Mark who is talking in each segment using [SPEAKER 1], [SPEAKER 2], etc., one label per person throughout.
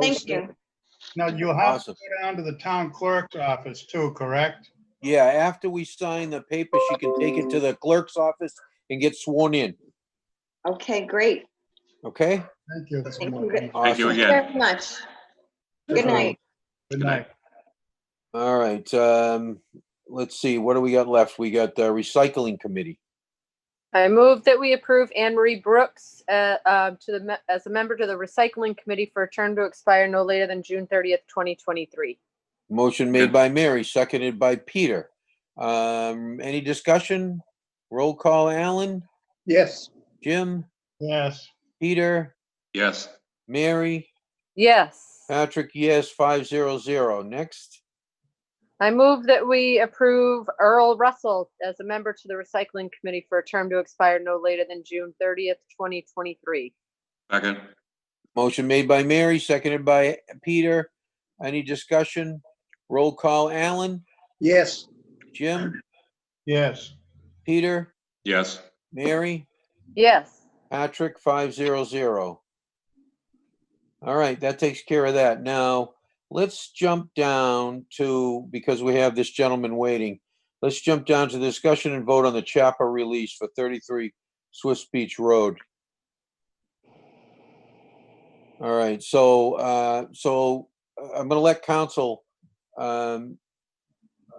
[SPEAKER 1] Thank you.
[SPEAKER 2] Now, you'll have to
[SPEAKER 3] Awesome.
[SPEAKER 2] go down to the town clerk's office too, correct?
[SPEAKER 3] Yeah, after we sign the paper, she can take it to the clerk's office and get sworn in,
[SPEAKER 1] Okay, great.
[SPEAKER 3] okay?
[SPEAKER 2] Thank you.
[SPEAKER 1] Thank you. Thank
[SPEAKER 4] Thank you
[SPEAKER 3] Awesome.
[SPEAKER 4] again.
[SPEAKER 1] Very much. Good night.
[SPEAKER 2] Good night.
[SPEAKER 3] All right, um, let's see, what do we got left? We got the recycling committee.
[SPEAKER 5] I move that we approve Anne Marie Brooks uh, uh, to the, me- as a member to the Recycling Committee for a term to expire no later than June 30th, 2023.
[SPEAKER 3] Motion made by Mary, seconded by Peter. Um, any discussion? Roll call, Alan,
[SPEAKER 2] Yes.
[SPEAKER 3] Jim,
[SPEAKER 2] Yes.
[SPEAKER 3] Peter,
[SPEAKER 4] Yes,
[SPEAKER 3] Mary,
[SPEAKER 5] Yes.
[SPEAKER 3] Patrick, yes, five zero zero. Next,
[SPEAKER 5] I move that we approve Earl Russell as a member to the Recycling Committee for a term to expire no later than June 30th, 2023.
[SPEAKER 4] second.
[SPEAKER 3] motion made by Mary, seconded by Peter. Any discussion? Roll call, Alan,
[SPEAKER 2] Yes.
[SPEAKER 3] Jim,
[SPEAKER 2] Yes.
[SPEAKER 3] Peter,
[SPEAKER 4] Yes,
[SPEAKER 3] Mary?
[SPEAKER 5] Yes.
[SPEAKER 3] Patrick, five zero zero. All right, that takes care of that. Now, let's jump down to, because we have this gentleman waiting. Let's jump down to discussion and vote on the Chapa release for thirty-three Swiss Beach Road. All right, so, uh, so uh, I'm gonna let council, um,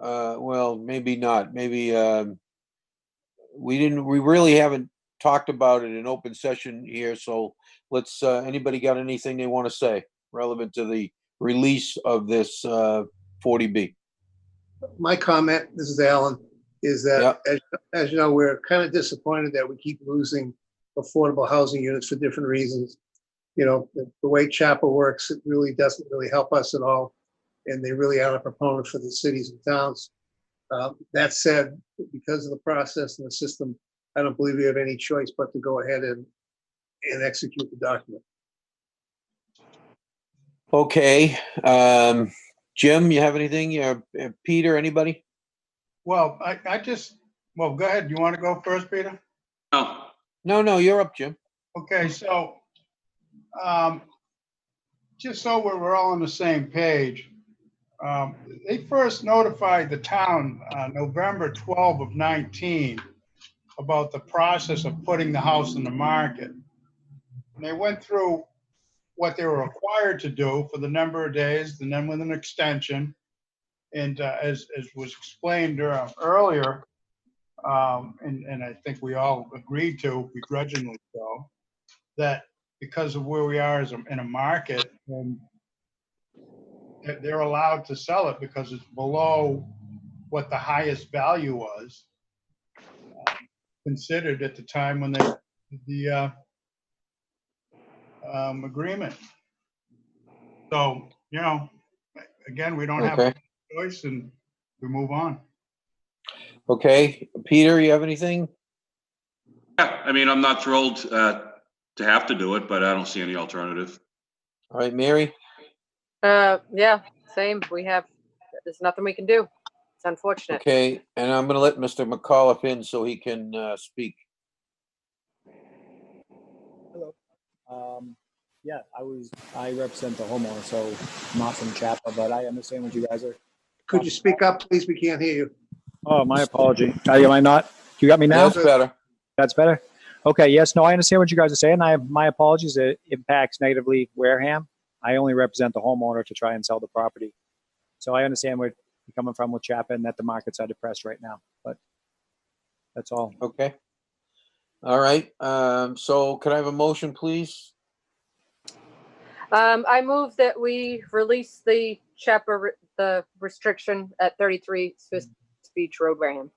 [SPEAKER 3] uh, well, maybe not, maybe, um, we didn't, we really haven't talked about it in open session here, so let's, uh, anybody got anything they want to say relevant to the release of this, uh, 40B?
[SPEAKER 6] my comment, this is Alan, is that,
[SPEAKER 3] Yep.
[SPEAKER 6] as, as you know, we're kind of disappointed that we keep losing affordable housing units for different reasons. You know, the, the way CHAPA works, it really doesn't really help us at all, and they really aren't a proponent for the cities and towns. Um, That said, because of the process and the system, I don't believe we have any choice but to go ahead and, and execute the document.
[SPEAKER 3] Okay, um, Jim, you have anything? Yeah, uh, Peter, anybody?
[SPEAKER 2] Well, I, I just, well, go ahead. You want to go first, Peter?
[SPEAKER 4] no,
[SPEAKER 3] No, no, you're up, Jim.
[SPEAKER 2] Okay, so, um, just so we're, we're all on the same page, um, they first notified the town, uh, November 12 of 19 about the process of putting the house in the market. And they went through what they were required to do for the number of days, and then with an extension. And, uh, as, as was explained uh, earlier, um, and, and I think we all agreed to begrudgingly so, that because of where we are as a, in a market, um, that they're allowed to sell it because it's below what the highest value was um, considered at the time when they, did the, uh, um, agreement. So, you know, again, we don't have
[SPEAKER 3] Okay,
[SPEAKER 2] a choice and we move on.
[SPEAKER 3] okay. Peter, you have anything?
[SPEAKER 4] yeah, I mean, I'm not thrilled uh, to have to do it, but I don't see any alternative.
[SPEAKER 3] All right, Mary?
[SPEAKER 5] Uh, Yeah, same. We have, there's nothing we can do. It's unfortunate.
[SPEAKER 3] Okay, and I'm gonna let Mr. McAuliffe in so he can, uh, speak.
[SPEAKER 7] Um, yeah, I was, I represent the homeowner, so I'm not from Chapel, but I understand what you guys are.
[SPEAKER 6] Could you speak up, please? We can't hear you.
[SPEAKER 7] Oh, my apology. Am I not? You got me now?
[SPEAKER 3] That's better.
[SPEAKER 7] That's better. Okay, yes, no, I understand what you guys are saying. I have, my apologies. It impacts negatively Wareham. I only represent the homeowner to try and sell the property. So I understand where you're coming from with Chapel and that the markets are depressed right now, but that's all.
[SPEAKER 3] Okay. All right, um, so could I have a motion, please?
[SPEAKER 5] Um, I move that we release the chapter, re- the restriction at 33 Swiss Beach Road, Wareham.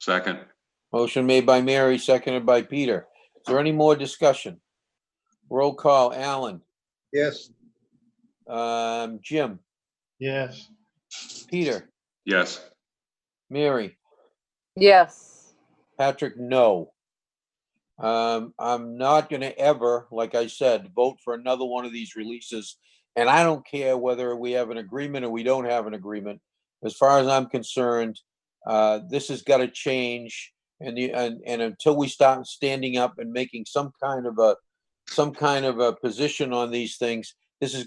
[SPEAKER 4] Second,
[SPEAKER 3] Motion made by Mary, seconded by Peter. Is there any more discussion? Roll call, Alan,
[SPEAKER 6] Yes,
[SPEAKER 3] um, Jim,
[SPEAKER 2] Yes.
[SPEAKER 3] Peter,
[SPEAKER 4] yes,
[SPEAKER 3] Mary,
[SPEAKER 5] Yes.
[SPEAKER 3] Patrick, no. Um, I'm not gonna ever, like I said, vote for another one of these releases. And I don't care whether we have an agreement or we don't have an agreement. As far as I'm concerned, uh, this has gotta change. And the, and, and until we start standing up and making some kind of a, some kind of a position on these things, this is